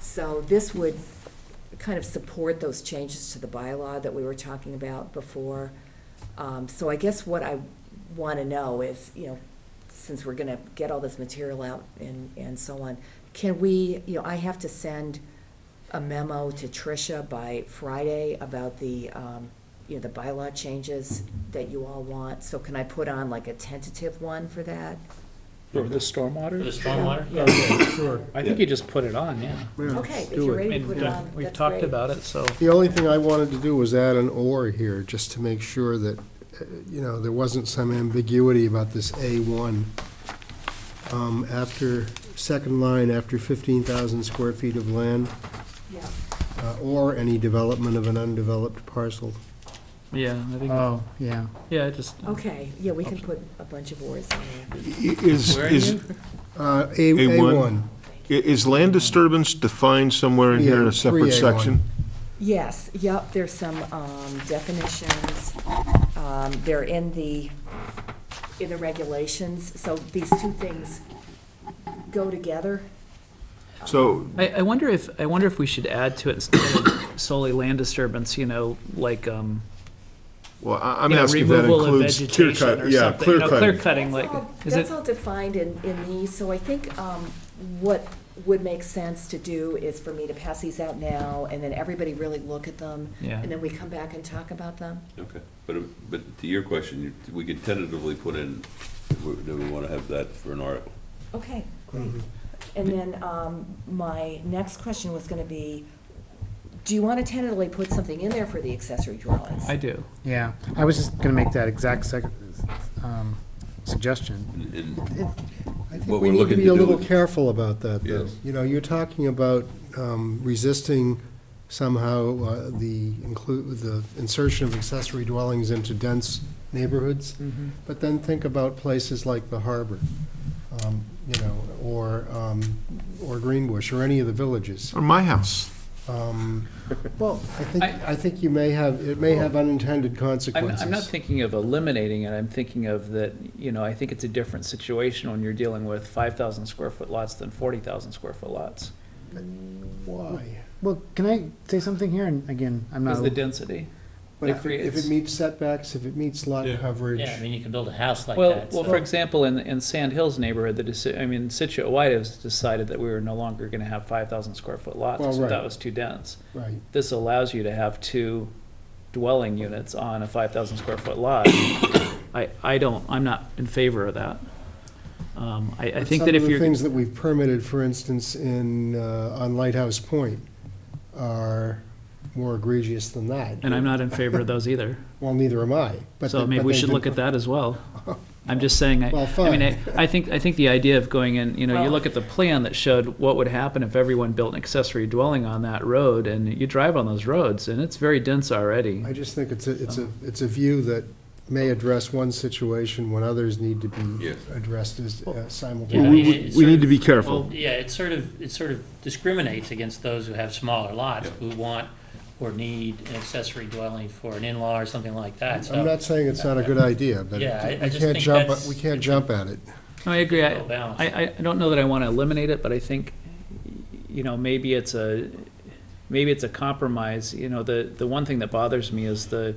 So this would kind of support those changes to the bylaw that we were talking about before. Um, So I guess what I want to know is, you know, since we're going to get all this material out and, and so on, can we, you know, I have to send a memo to Tricia by Friday about the, um, you know, the bylaw changes that you all want. So can I put on like a tentative one for that? For the For the stormwater? stormwater? Yeah. Sure. I think you just put it on, yeah. Okay, if do you're it. ready to And uh, put it on, that's We've talked great. about it, so. The only thing I wanted to do was add an or here, just to make sure that, uh, you know, there wasn't some ambiguity about this A1. Um, After, second line, after 15,000 square feet of land, Yeah. uh, or any development of an undeveloped parcel. Yeah, I think, Oh, yeah. yeah, I just, Okay, yeah, we can put a bunch of words in there. Is, is, i- Uh, A- A1? A1. is land disturbance defined somewhere in here in Yeah, a separate 3A1. section? Yes, yep, there's some um, definitions. Um, They're in the, in the regulations, so these two things go together. So, I, I wonder if, I wonder if we should add to it instead of solely land disturbance, you know, like, um, well, I- I'm you know, asking if that removal of includes clear vegetation cut, or yeah, something. You clear know, cutting. Clear cutting, That's like, all- is That's it, all defined in, in these, so I think um, what would make sense to do is for me to pass these out now, and then everybody really look at them, yeah. and then we come back and talk about them. Okay, but, but to your question, you- we could tentatively put in, do we- do we want to have that for an article? Okay, great. And then um, my next question was going to be, do you want to tentatively put something in there for the accessory dwellings? I do. Yeah, I was just gonna make that exact sec, um, suggestion. And- and- I think What we need we're to looking be to a do little with- careful about that, though. Yes. You know, you're talking about um, resisting somehow uh, the include, the insertion of accessory dwellings into dense neighborhoods, but then think about places like the harbor, um, you know, or, um, or Greenbush, or any of the villages. Or my house. Um, Well, I think, I- I think you may have, it may have unintended I'm, consequences. I'm not thinking of eliminating it, I'm thinking of that, you know, I think it's a different situation when you're dealing with five thousand square foot lots than forty thousand square foot lots. Why? Well, can I say something here? And again, I'm Is not, the density? But if it- if creates- it meets setbacks, if it meets lot coverage. Yeah, I mean, you can build a house like Well, that. well, so- for example, in, in Sand Hills neighborhood, the deci- I mean, Situate White has decided that we were no longer gonna have five thousand square foot lots, Well, so that right. was too dense. Right. This allows you to have two dwelling units on a five thousand square foot lot. I, I don't, I'm not in favor of that. Um, I, I think that if Some you're. of the things that we've permitted, for instance, in, uh, on Lighthouse Point are more egregious than that. And I'm not in favor of those either. Well, neither am I. but So they- maybe but we they've should been- look at that as well. I'm just saying, I, Well, I mean, I, I think, I think the idea of going in, you know, you Well- look at the plan that showed what would happen if everyone built an accessory dwelling on that road, and you drive on those roads, and it's very dense already. I just think it's a, it's a, it's a view that may address one situation when others need to be Yes. addressed as uh, Yeah, I simultaneously. mean, it We sort need of- to be careful. Yeah, it sort of, it sort of discriminates against those who have smaller lots, who want or need an accessory dwelling for an in-law or something like that, so. I'm not saying it's not a good idea, but Yeah, I- I it- we just can't think jump, that's- we can't jump at it. No, I agree. I, Well balanced. I, I- I don't know that I want to eliminate it, but I think, you know, maybe it's a, maybe it's a compromise. You know, the, the one thing that bothers me is the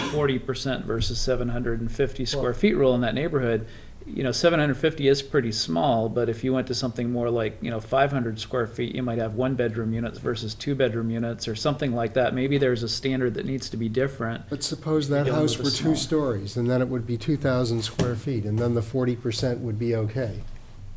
forty percent versus seven hundred and fifty square feet rule in that neighborhood. You know, seven hundred and fifty is pretty small, but if you went to something more like, you know, five hundred square feet, you might have one-bedroom units versus two-bedroom units or something like that. Maybe there's a standard that needs to be different. But suppose that Yeah, house with a were small- two stories, and then it would be 2,000 square feet, and then the 40% would be okay.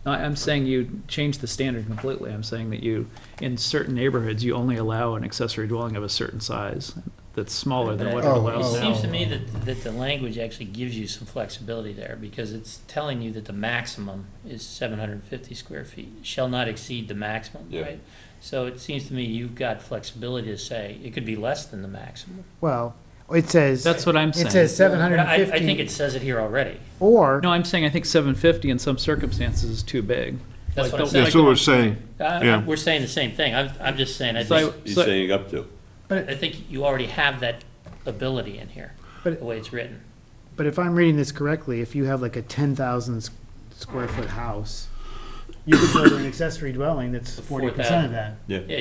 No, I- I'm saying you change the standard completely. I'm saying that you, in certain neighborhoods, you only allow an accessory dwelling of a certain size that's smaller than what it Oh, It allows seems to now. me that, that the language actually gives you some flexibility there, because it's telling you that the maximum is seven hundred and fifty square feet, shall not exceed the maximum, Yeah. right? So it seems to me you've got flexibility to say, it could be less than the maximum. well, it says, That's what I'm it says saying. seven But hundred I, and I think fifty, it says it here already, or, No, I'm saying I think seven fifty in some circumstances is too big. that's what I'm Like, saying. That's what we're saying. I- I- yeah. We're saying the same thing, I'm, I'm just saying, I So I- think, He's so- saying up to. I think you already have that ability in here, the But- way it's written. but if I'm reading this correctly, if you have like a ten thousand square foot house, you could build an accessory dwelling that's forty percent 4,000. of that. Yeah. Yeah,